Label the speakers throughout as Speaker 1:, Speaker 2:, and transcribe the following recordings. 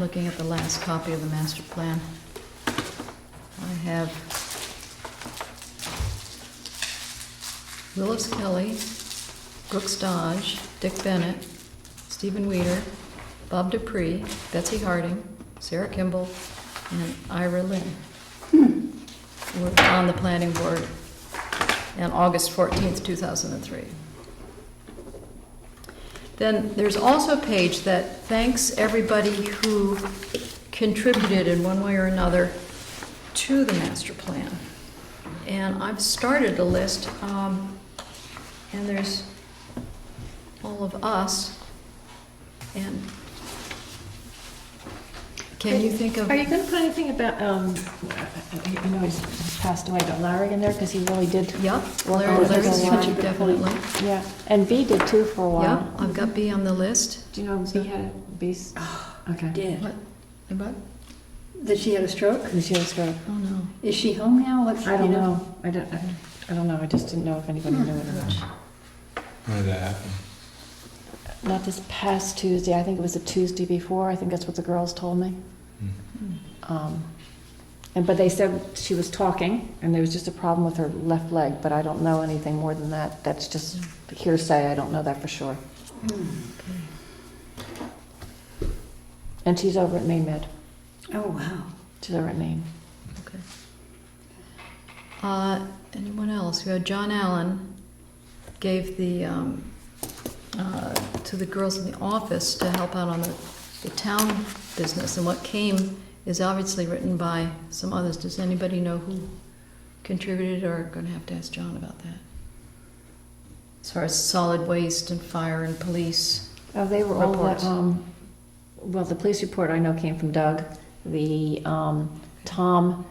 Speaker 1: looking at the last copy of the master plan. I have Willis Kelly, Brooks Dodge, Dick Bennett, Stephen Weeder, Bob Dupree, Betsy Harding, Sarah Kimball, and Ira Lynn were on the planning board on August 14th, 2003. Then there's also a page that thanks everybody who contributed in one way or another to the master plan. And I've started a list, um, and there's all of us, and can you think of?
Speaker 2: Are you gonna put anything about, um, I I know he's he's passed away, but Larry in there, because he really did,
Speaker 1: Yeah,
Speaker 2: Well,
Speaker 1: Larry,
Speaker 2: there's a
Speaker 1: Larry's
Speaker 2: lot.
Speaker 1: huge, definitely.
Speaker 2: yeah, and V did too for a
Speaker 1: Yeah,
Speaker 2: while.
Speaker 1: I've got B on the list.
Speaker 2: Do you know V had a B's? Okay.
Speaker 3: Did.
Speaker 1: What? What?
Speaker 3: That she had a stroke?
Speaker 2: Did she have a stroke?
Speaker 1: Oh, no.
Speaker 3: Is she home now? What's,
Speaker 2: I don't
Speaker 3: you
Speaker 2: know, I don't, I- I don't know, I just didn't know if anybody knew it or not.
Speaker 4: When did that happen?
Speaker 2: Hmm. Not this past Tuesday, I think it was the Tuesday before, I think that's what the girls told me. Um, And, but they said she was talking, and there was just a problem with her left leg, but I don't know anything more than that, that's just hearsay, I don't know that for sure.
Speaker 3: Hmm.
Speaker 2: And she's over at Maine Med,
Speaker 3: Oh, wow.
Speaker 2: she's over at Maine.
Speaker 1: Okay. Uh, Anyone else? We had John Allen gave the, um, uh, to the girls in the office to help out on the the town business. And what came is obviously written by some others. Does anybody know who contributed or going to have to ask John about that? As far as solid waste and fire and police.
Speaker 2: Oh, they were all,
Speaker 1: Reports.
Speaker 2: the, um, well, the police report I know came from Doug, the, um, Tom,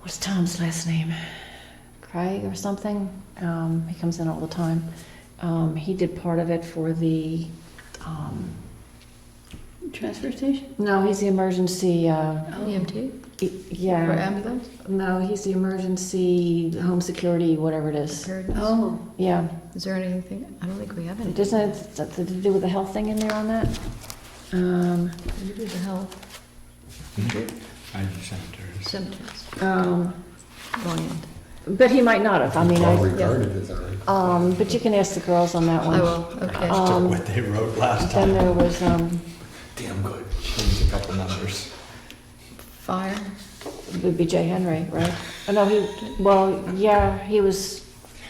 Speaker 2: what's Tom's last name? Craig or something, um, he comes in all the time. Um, he did part of it for the, um,
Speaker 3: Transfer station?
Speaker 2: no, he's the emergency, uh,
Speaker 3: Oh.
Speaker 1: EMT
Speaker 2: e-
Speaker 1: or
Speaker 2: yeah,
Speaker 1: ambulance?
Speaker 2: no, he's the emergency home security, whatever it is.
Speaker 1: Preparedness?
Speaker 3: Oh,
Speaker 2: Yeah,
Speaker 1: Is there anything, I don't think we have any.
Speaker 2: doesn't it, have something to do with the health thing in there on that? Um,
Speaker 1: You do the health,
Speaker 4: Mm-hmm. I just sent hers.
Speaker 1: cemeteries,
Speaker 2: um,
Speaker 1: land.
Speaker 2: But he might not have. I mean,
Speaker 5: Well
Speaker 2: I,
Speaker 5: regarded as our.
Speaker 2: um, but you can ask the girls on that one.
Speaker 1: I will, okay.
Speaker 2: Uh, Um,
Speaker 4: What they wrote last
Speaker 2: Then
Speaker 4: time.
Speaker 2: there was, um,
Speaker 4: Damn good. Changed a couple numbers.
Speaker 1: Fire,
Speaker 2: would be Jay Henry, right? Oh, no, he, well, yeah, he was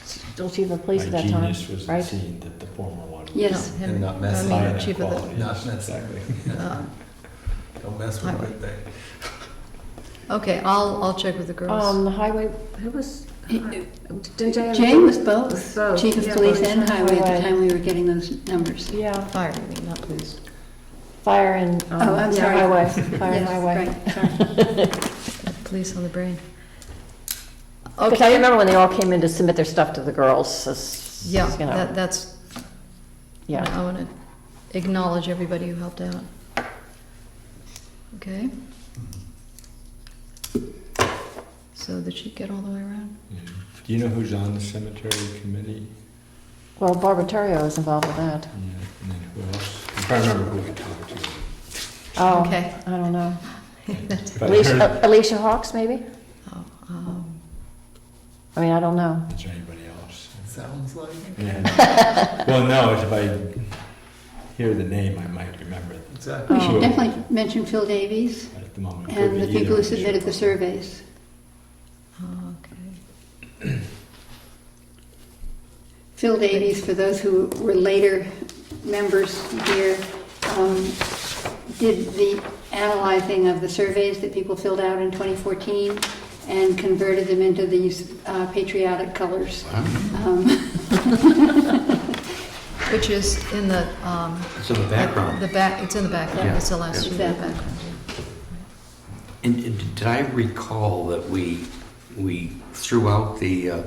Speaker 2: still chief of police at that
Speaker 4: My
Speaker 2: time,
Speaker 4: genius was the
Speaker 2: right?
Speaker 4: scene that the former one.
Speaker 3: yes.
Speaker 1: no, Henry.
Speaker 5: And not
Speaker 1: I
Speaker 5: messy.
Speaker 1: mean,
Speaker 4: Fire and
Speaker 1: chief of the-
Speaker 4: quality.
Speaker 5: Not necessary.
Speaker 4: Exactly.
Speaker 1: uh,
Speaker 5: Don't mess with my thing.
Speaker 1: Okay, I'll, I'll check with the girls.
Speaker 2: Um, the highway, who was, didn't Jay?
Speaker 3: Jane was both,
Speaker 2: Both,
Speaker 3: chief of
Speaker 2: yeah,
Speaker 3: police
Speaker 2: both.
Speaker 3: and highway at
Speaker 2: Highway.
Speaker 3: the time we were getting those numbers.
Speaker 2: Yeah,
Speaker 1: Fire, I mean, not police.
Speaker 2: fire and, um,
Speaker 3: Oh, I'm
Speaker 2: yeah,
Speaker 3: sorry.
Speaker 2: highway, fire and
Speaker 3: Yes,
Speaker 2: highway.
Speaker 3: right, sorry.
Speaker 1: Police on the brain.
Speaker 2: Because I
Speaker 1: Okay,
Speaker 2: remember when they all came in to submit their stuff to the girls, it's, you
Speaker 1: yeah, that,
Speaker 2: know,
Speaker 1: that's,
Speaker 2: yeah.
Speaker 1: I want to acknowledge everybody who helped out. Okay? So did she get all the way around?
Speaker 4: Yeah. Mm-hmm. Do you know who's on the cemetery committee?
Speaker 2: Well, Barbara Terrio was involved with that.
Speaker 4: Yeah, And then who else? I'm trying to remember who I talked to.
Speaker 2: Oh,
Speaker 1: Okay.
Speaker 2: I don't know.
Speaker 4: If I heard-
Speaker 2: Alicia, Alicia Hawks, maybe?
Speaker 1: Oh, um,
Speaker 2: I mean, I don't know.
Speaker 4: Is there anybody else?
Speaker 5: Sounds like.
Speaker 4: Yeah. Well, no, if I hear the name, I might remember it.
Speaker 5: Exactly.
Speaker 3: We should
Speaker 2: Oh.
Speaker 3: definitely mention Phil Davies
Speaker 4: But At the moment. it could
Speaker 3: and
Speaker 4: be
Speaker 3: the
Speaker 4: either
Speaker 3: people who
Speaker 4: of us.
Speaker 3: submitted the surveys.
Speaker 1: oh, okay.
Speaker 3: Phil Davies, for those who were later members here, um, did the analyzing of the surveys that people filled out in 2014 and converted them into these uh, patriotic colors. Um,
Speaker 1: Which is in the, um.
Speaker 6: It's in the background.
Speaker 1: The back, it's in the background,
Speaker 6: Yeah.
Speaker 1: it's the last sheet of the
Speaker 3: Exactly.
Speaker 1: background.
Speaker 6: And and did I recall that we, we threw out the, uh,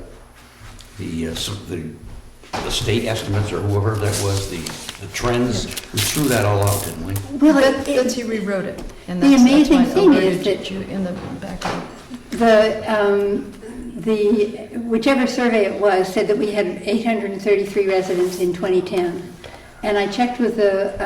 Speaker 6: the, uh, some- the the state estimates or whoever that was, the the trends? We threw that all out, didn't we?
Speaker 3: Well,
Speaker 1: But
Speaker 3: it- it-
Speaker 1: Betsy rewrote it, and
Speaker 3: The
Speaker 1: that's, that's
Speaker 3: amazing
Speaker 1: why I
Speaker 3: thing is
Speaker 1: alerted
Speaker 3: that-
Speaker 1: you in the background.
Speaker 3: The, um, the, whichever survey it was, said that we had 833 residents in 2010. And I checked with the